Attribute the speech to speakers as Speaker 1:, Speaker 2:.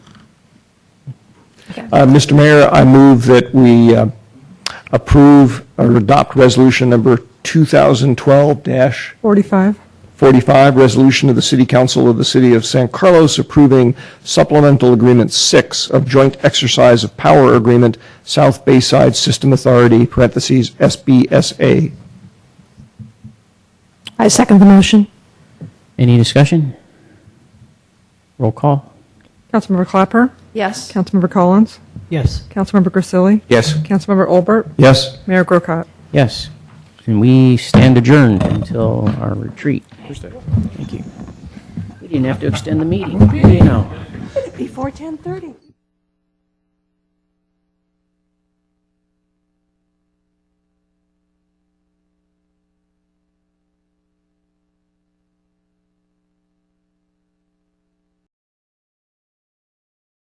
Speaker 1: Uh, Mr. Mayor, I move that we uh, approve or adopt resolution number 2012-45,
Speaker 2: 45.
Speaker 1: resolution of the City Council of the City of San Carlos approving supplemental agreement six of joint exercise of power agreement, South Bayside System Authority, parentheses, SBSA.
Speaker 3: I second the motion.
Speaker 4: Any discussion? Roll call.
Speaker 2: Councilmember Clapper.
Speaker 3: Yes.
Speaker 2: Councilmember Collins.
Speaker 4: Yes.
Speaker 2: Councilmember Grisilli.
Speaker 1: Yes.
Speaker 2: Councilmember Olbert.
Speaker 1: Yes.
Speaker 2: Mayor Grocott.
Speaker 4: Yes. And we stand adjourned until our retreat. Thank you. We didn't have to extend the meeting. You know.
Speaker 5: Before 10:30.